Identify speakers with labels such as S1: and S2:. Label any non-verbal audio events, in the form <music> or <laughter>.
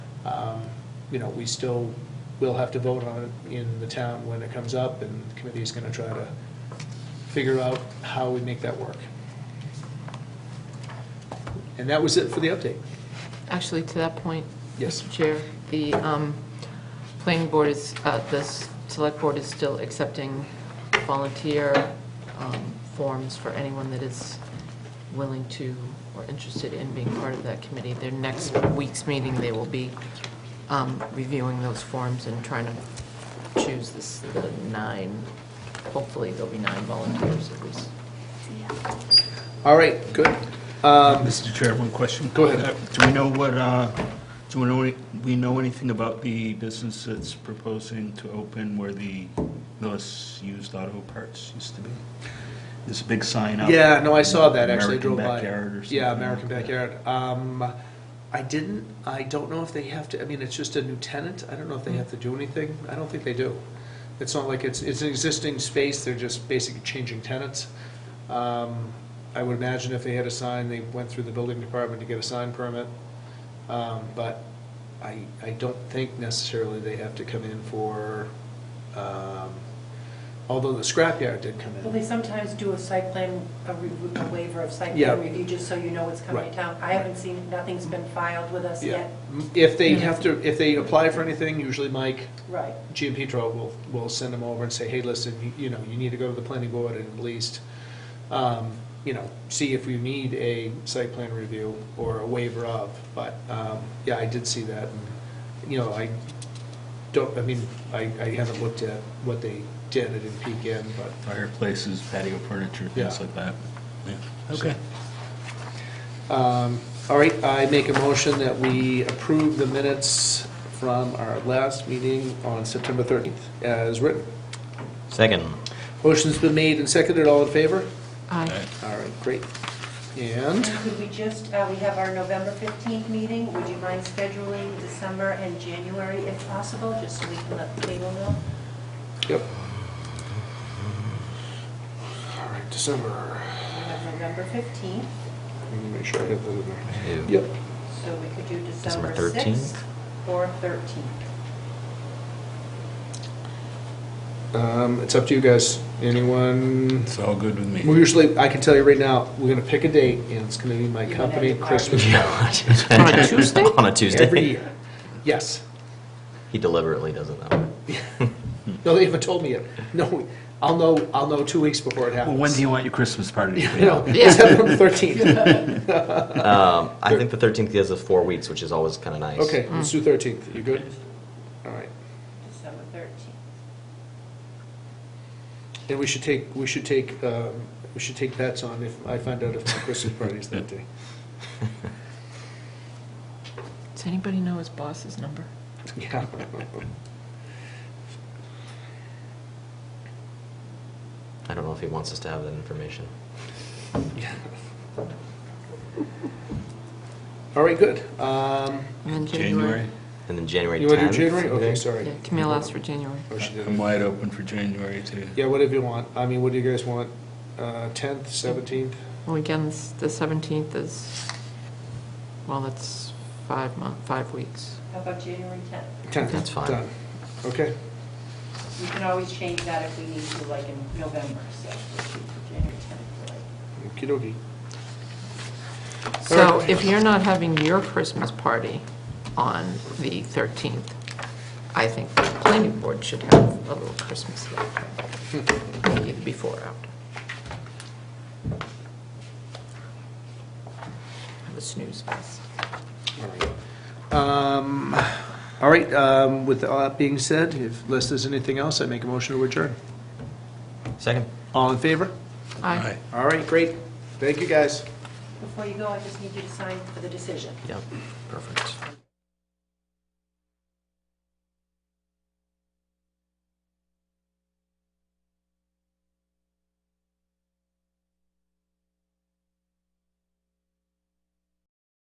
S1: um, you know, we still will have to vote on it in the town when it comes up, and the committee is going to try to figure out how we make that work. And that was it for the update.
S2: Actually, to that point,
S1: Yes.
S2: Mr. Chair, the um, planning board is, uh, the s- select board is still accepting volunteer um, forms for anyone that is willing to or interested in being part of that committee. Their next week's meeting, they will be um, reviewing those forms and trying to choose this, the nine, hopefully there'll be nine volunteers at least.
S1: All right, good. Um,
S3: Mr. Chair, one question.
S1: Go ahead.
S3: Uh, Do we know what, uh, do we know, any- we know anything about the business that's proposing to open where the Millis Used Auto Parts used to be? There's a big sign up.
S1: Yeah, no, I saw that, actually, I
S3: American
S1: drove by.
S3: Backyard or something.
S1: Yeah, American Backyard. Um, I didn't, I don't know if they have to, I mean, it's just a new tenant, I don't know if they have to do anything, I don't think they do. It's not like it's, it's an existing space, they're just basically changing tenants. Um, I would imagine if they had a sign, they went through the building department to get a sign permit. Um, but I, I don't think necessarily they have to come in for, um, although the scrapyard did come in.
S4: Well, they sometimes do a site plan, a re- a waiver of site
S1: Yeah.
S4: plan review, just so you know what's coming
S1: Right.
S4: to town. I haven't seen, nothing's been filed with us
S1: Yeah,
S4: yet.
S1: if they have to, if they apply for anything, usually Mike,
S4: Right.
S1: Gian Pietro will, will send them over and say, hey, listen, you- you know, you need to go to the planning board and at least, um, you know, see if you need a site plan review or a waiver of, but, um, yeah, I did see that. and, You know, I don't, I mean, I, I haven't looked at what they did, I didn't peek in, but,
S3: Fireplaces, patio furniture,
S1: Yeah.
S3: things like that. Yeah. Okay.
S1: Um, All right, I make a motion that we approve the minutes from our last meeting on September 13th as written.
S5: Second.
S1: Motion's been made and seconded, all in favor?
S2: Aye.
S1: All right, great. And,
S4: And could we just, uh, we have our November 15th meeting, would you mind scheduling December and January if possible, just so we can let the table know?
S1: yep. All right, December,
S4: We have November 15th,
S1: let me make sure I have that in there. Yep,
S4: so we could do
S5: December
S4: December
S5: 13th?
S4: 6th or 13th.
S1: Um, it's up to you guys. Anyone?
S3: It's all good with me.
S1: Well, usually, I can tell you right now, we're gonna pick a date, and it's gonna be my
S4: You're gonna
S1: company
S4: have to
S1: Christmas
S4: party.
S1: party.
S2: On a Tuesday?
S5: <laughs> On a <laughs> Tuesday.
S1: Every year. Yes.
S5: He deliberately doesn't
S1: <laughs>
S5: know.
S1: No, they haven't told me yet. No, I'll know, I'll know two weeks before it
S3: Well,
S1: happens.
S3: when do you want your
S1: <laughs>
S3: Christmas party to be?
S1: No, it's September 13th.
S5: Um, I think the 13th gives us four weeks, which is always kind of nice.
S1: Okay, let's do 13th. You good? All right.
S4: December 13th.
S1: And we should take, we should take, um, we should take bets on if, I find out if my Christmas party is that day. <laughs>
S2: Does anybody know his boss's number?
S1: Yeah.
S5: I don't know if he wants us to have that information.
S1: All right, good. Um,
S2: And then
S3: January?
S5: And then January 10th.
S1: You want to do January? Okay,
S2: Yeah,
S1: sorry.
S2: Camille asked for January.
S1: Oh, she did.
S3: I'm wide open for January, too.
S1: Yeah, whatever you want. I mean, what do you guys want? Uh, 10th, 17th?
S2: Well, again, s- the 17th is, well, that's five month, five weeks.
S4: How about January 10th?
S1: 10th.
S5: That's fine.
S1: Done. Okay.
S4: We can always change that if we need to, like in November, so just shoot for January 10th. like-
S1: Okey-dokey.
S2: So
S1: Alright.
S2: if you're not having your Christmas party on the 13th, I think the planning board should have a little Christmas event, either before or after. Have a snooze fest.
S1: Um, All right, um, with all that being said, if, unless there's anything else, I make a motion to adjourn.
S5: Second.
S1: All in favor?
S2: Aye.
S1: All right, great. Thank you, guys.
S4: Before you go, I just need you to sign for the decision.
S5: Yep. Perfect.